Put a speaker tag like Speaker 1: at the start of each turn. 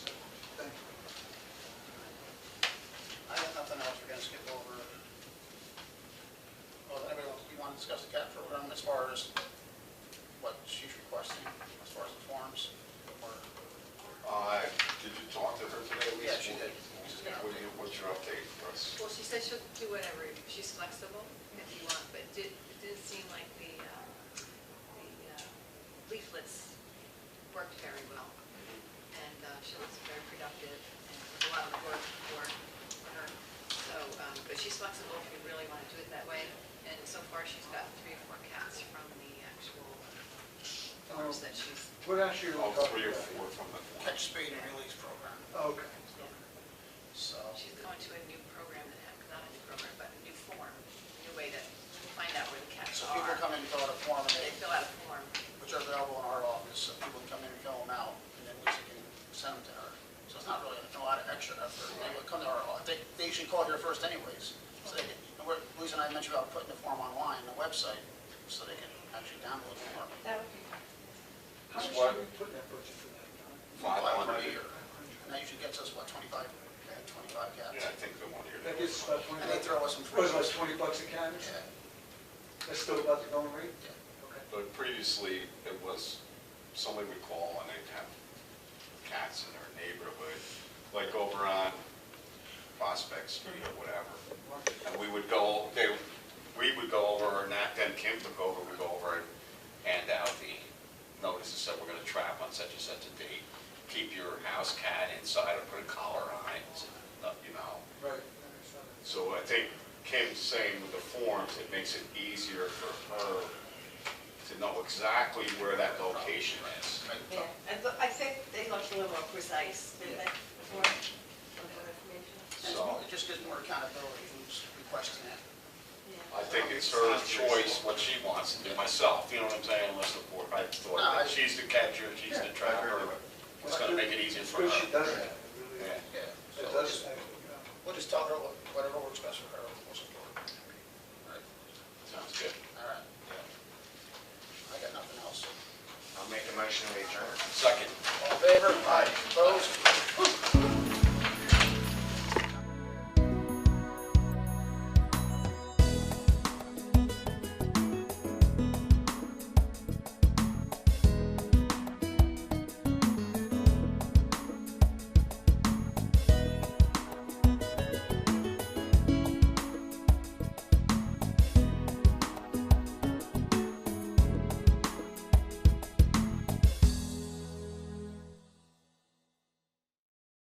Speaker 1: discuss the CAP program as far as what she's requesting, as far as the forms, or,
Speaker 2: Uh, did you talk to her today, Lisa?
Speaker 1: Yeah, she did. She's gonna
Speaker 2: What do you- What's your update for us?
Speaker 3: Well, she said she'll do whatever, she's flexible if you want, but it did- it didn't seem like the uh, the uh, leaflets worked very well. And uh, she was very productive and a lot of work for for her. So, um, but she's flexible if you really want to do it that way. And so far, she's got three or four cats from the actual farms that she's,
Speaker 4: What actually are we
Speaker 2: Oh,
Speaker 4: talking about?
Speaker 2: three or four from the form.
Speaker 1: catch spade and release program,
Speaker 4: Okay.
Speaker 1: so.
Speaker 3: she's going to a new program that, ha- not a new program, but a new form, a new way to find out where the cats
Speaker 1: So
Speaker 3: are.
Speaker 1: people come in and fill out a form, and
Speaker 3: They
Speaker 1: they,
Speaker 3: fill out a form.
Speaker 1: which are available in our office, so people can come in and fill them out, and then Lisa can send them to her. So it's not really a lot of extra effort, they would come to our, office. they, they should call here first anyways. So they, can- and we're, Lisa and I mentioned about putting the form online, the website, so they can actually download the form.
Speaker 3: That would be.
Speaker 4: How much
Speaker 2: That's
Speaker 4: did
Speaker 2: what-
Speaker 4: we put in that budget for that?
Speaker 2: Five
Speaker 1: a
Speaker 2: hundred.
Speaker 1: year. And that usually gets us, what, 25, yeah, 25
Speaker 2: Yeah, I
Speaker 1: cats?
Speaker 2: think the one here.
Speaker 4: That gives us about twenty.
Speaker 1: And they throw us some free
Speaker 4: What, about
Speaker 1: stuff.
Speaker 4: twenty bucks a can?
Speaker 1: Yeah,
Speaker 4: That's still about the going rate?
Speaker 1: yeah.
Speaker 4: Okay.
Speaker 2: But previously, it was, somebody would call and they'd have cats in their neighborhood, like over on Prospect Street or whatever. And we would go, they, we would go over, and that, then Kim took over, would go over and hand out the notices that we're gonna trap on such and such a date. Keep your house cat inside and put a collar on it, and, you know.
Speaker 4: Right. that makes sense.
Speaker 2: So I think Kim's saying with the forms, it makes it easier for her to know exactly where that location is.
Speaker 1: Right.
Speaker 5: Yeah, and look- I think they look a little more precise, didn't they, before? More information?
Speaker 1: It's
Speaker 2: So-
Speaker 1: more- It just gives more accountability who's requesting it.
Speaker 5: Yeah.
Speaker 2: I think it's her choice what she wants to do myself, you know what I'm saying, unless the board, I thought that she's the catcher, she's the trapper. It's gonna make it easier
Speaker 4: It's
Speaker 2: for
Speaker 4: good she
Speaker 2: her.
Speaker 4: does that, it really
Speaker 2: Yeah.
Speaker 4: is.
Speaker 1: Yeah. So
Speaker 4: It
Speaker 1: we'll
Speaker 4: does
Speaker 1: just-
Speaker 4: actually, yeah.
Speaker 1: We'll just tell her what- whatever works best for her, we'll support her. Right.
Speaker 2: Sounds good.
Speaker 1: All right. I got nothing else.
Speaker 6: I'll make a motion to adjourn.
Speaker 2: Second.
Speaker 1: All in favor? Aye. Opposed?